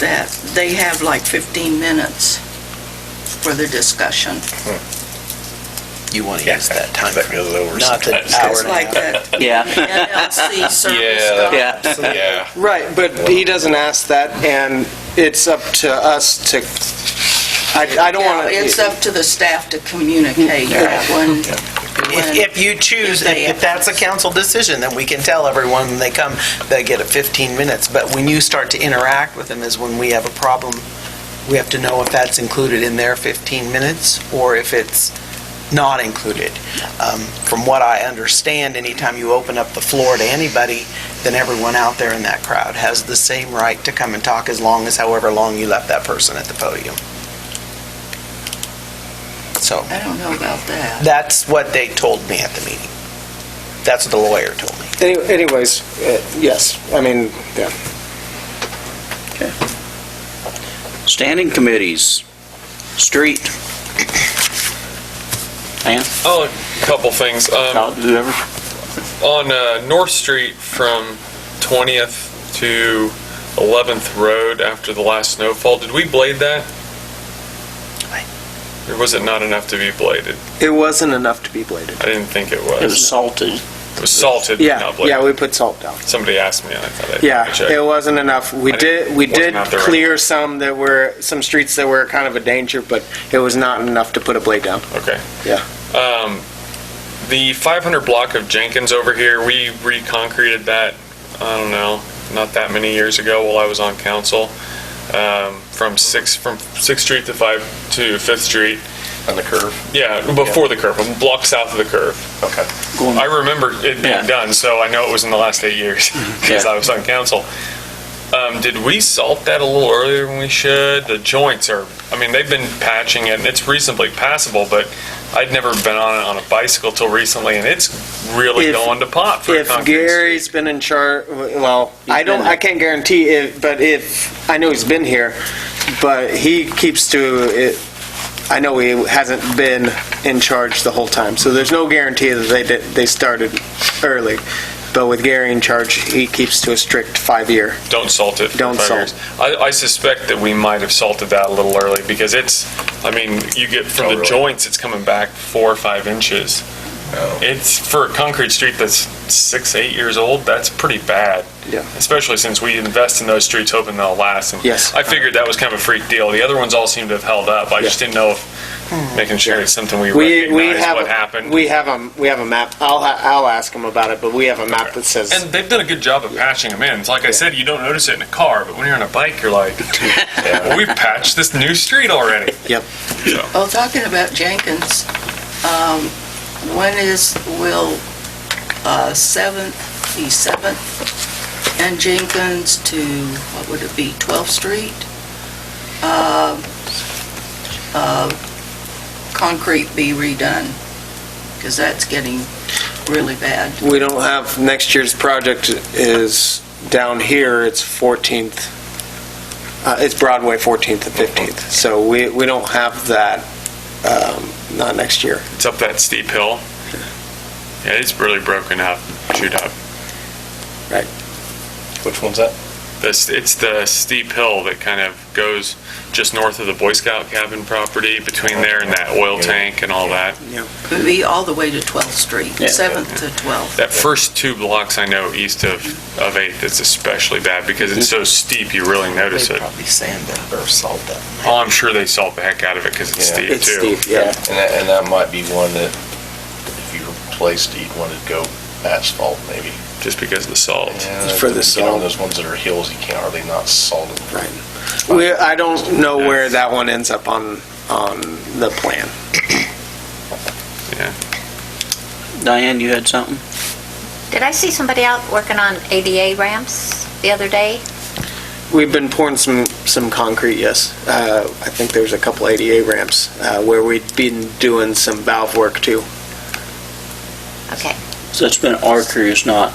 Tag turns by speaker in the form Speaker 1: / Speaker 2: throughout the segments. Speaker 1: that they have like 15 minutes for their discussion.
Speaker 2: You want to use that time.
Speaker 3: That goes over
Speaker 2: Not the
Speaker 3: sometimes.
Speaker 2: hour
Speaker 1: It's
Speaker 2: and a
Speaker 1: like
Speaker 2: half.
Speaker 1: that
Speaker 4: Yeah,
Speaker 1: NLC service
Speaker 3: Yeah.
Speaker 1: stuff.
Speaker 4: yeah.
Speaker 3: Yeah,
Speaker 5: Right, but he doesn't ask that, and it's up to us to, I, I don't
Speaker 1: Yeah,
Speaker 5: want to.
Speaker 1: it's up to the staff to communicate that one.
Speaker 2: If, if you choose, if, if that's a council decision, then we can tell everyone when they come, they get a 15 minutes. But when you start to interact with them is when we have a problem. We have to know if that's included in their 15 minutes or if it's not included. Um, From what I understand, anytime you open up the floor to anybody, then everyone out there in that crowd has the same right to come and talk as long as however long you left that person at the podium. So.
Speaker 1: I don't know about that.
Speaker 2: That's what they told me at the meeting. That's what the lawyer told me.
Speaker 5: Any- Anyways, uh, yes, I mean, yeah.
Speaker 4: Standing committees, street. Ann?
Speaker 6: Oh, a couple things. Um,
Speaker 4: Whoever.
Speaker 6: on uh, North Street from 20th to 11th Road after the last snowfall, did we blade that? Or was it not enough to be bladed?
Speaker 5: It wasn't enough to be bladed.
Speaker 6: I didn't think it
Speaker 4: It was
Speaker 6: was.
Speaker 4: salted.
Speaker 6: It was salted, but
Speaker 5: Yeah,
Speaker 6: not
Speaker 5: yeah,
Speaker 6: bladed.
Speaker 5: we put salt down.
Speaker 6: Somebody asked me, and I thought I'd
Speaker 5: Yeah,
Speaker 6: check.
Speaker 5: it wasn't enough. We
Speaker 6: I didn't-
Speaker 5: did, we
Speaker 6: wasn't
Speaker 5: did
Speaker 6: out there
Speaker 5: clear some that were, some streets that were kind of a danger, but it was not enough to put a blade down.
Speaker 6: Okay.
Speaker 5: Yeah.
Speaker 6: Um, the 500 block of Jenkins over here, we reconcreted that, I don't know, not that many years ago while I was on council, um, from 6, from 6th Street to 5, to 5th Street.
Speaker 3: on the curve.
Speaker 6: Yeah, before the curve, a block south of the curve.
Speaker 3: Okay.
Speaker 6: I remember it
Speaker 4: Yeah.
Speaker 6: being done, so I know it was in the last eight years, because
Speaker 4: Yeah.
Speaker 6: I was on council. Um, did we salt that a little earlier than we should? The joints are, I mean, they've been patching it, and it's reasonably passable, but I'd never been on it on a bicycle till recently, and it's really
Speaker 5: If-
Speaker 6: going to pot for a
Speaker 5: If
Speaker 6: concrete
Speaker 5: Gary's been in charge, well, I
Speaker 4: He's
Speaker 5: don't,
Speaker 4: been-
Speaker 5: I can't guarantee it, but if, I know he's been here, but he keeps to it, I know he hasn't been in charge the whole time, so there's no guarantee that they did, they started early. But with Gary in charge, he keeps to a strict five-year.
Speaker 6: street. Don't salt it. for
Speaker 5: Don't
Speaker 6: five
Speaker 5: salt.
Speaker 6: years. I, I suspect that we might have salted that a little early, because it's, I mean, you get
Speaker 3: Oh,
Speaker 6: from the
Speaker 3: really?
Speaker 6: joints, it's coming back four or five inches.
Speaker 3: Oh.
Speaker 6: It's for a concrete street that's six, eight years old. That's pretty bad.
Speaker 5: Yeah.
Speaker 6: Especially since we invest in those streets hoping they'll last. And
Speaker 5: Yes.
Speaker 6: I figured that was kind of a freak deal. The other ones all seem to have held up. I just didn't know if
Speaker 3: Hmm.
Speaker 6: making sure it's something we,
Speaker 5: We, we
Speaker 6: recognize
Speaker 5: have,
Speaker 6: what
Speaker 5: a-
Speaker 6: happened.
Speaker 5: we have a, we have a map, I'll, ha- I'll ask him about it, but we have a map that says.
Speaker 6: and they've done a good job of patching them in. It's like I said, you don't notice it in a car, but when you're on a bike, you're like, well, we've patched this new street already.
Speaker 5: Yep.
Speaker 1: Well, talking about Jenkins, um, when is, will, uh, 7th, the 7th, and Jenkins to, what would it be, 12th Street? Um, uh, Concrete be redone, because that's getting really bad.
Speaker 5: We don't have, next year's project is down here, it's 14th, uh, it's Broadway 14th and 15th, so we, we don't have that, um, not next year.
Speaker 6: It's up that steep hill. Yeah, it's really broken up, chewed up.
Speaker 3: Which one's that?
Speaker 6: This, it's the steep hill that kind of goes just north of the Boy Scout cabin property, between there and that oil tank and all that.
Speaker 1: It would be all the way to 12th Street, 7th to 12th.
Speaker 6: That first two blocks I know east of, of 8th, it's especially bad because it's so steep, you really notice
Speaker 2: They
Speaker 6: it.
Speaker 2: probably sand that or salt that.
Speaker 6: Oh, I'm sure they salt the heck out of it because it's
Speaker 3: Yeah.
Speaker 6: steep
Speaker 5: It's
Speaker 6: too.
Speaker 5: steep, yeah.
Speaker 3: And that, and that might be one that if you replaced it, you'd want to go asphalt maybe.
Speaker 6: Just because of the salt.
Speaker 5: For the
Speaker 3: You know,
Speaker 5: salt.
Speaker 3: those ones that are hills, you can't, are they not salted?
Speaker 5: Right. We, I don't know where that one ends up on, on the plan.
Speaker 4: Diane, you had something?
Speaker 7: Did I see somebody out working on ADA ramps the other day?
Speaker 5: We've been pouring some, some concrete, yes. Uh, I think there's a couple ADA ramps, uh, where we've been doing some valve work too.
Speaker 7: Okay,
Speaker 4: So it's been our crew, it's not,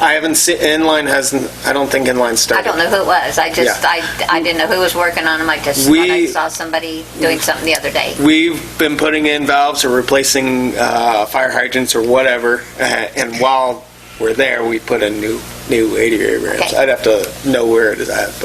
Speaker 5: I haven't seen, inline hasn't, I don't think inline started.
Speaker 7: I don't know who it was, I just,
Speaker 5: Yeah.
Speaker 7: I, I didn't know who was working on them, I just thought I
Speaker 5: We-
Speaker 7: saw somebody doing something the other day.
Speaker 5: We've been putting in valves or replacing uh, fire hydrants or whatever, uh, and while we're there, we put in new, new ADA ramps.
Speaker 7: Okay.
Speaker 5: I'd have to know where it is at,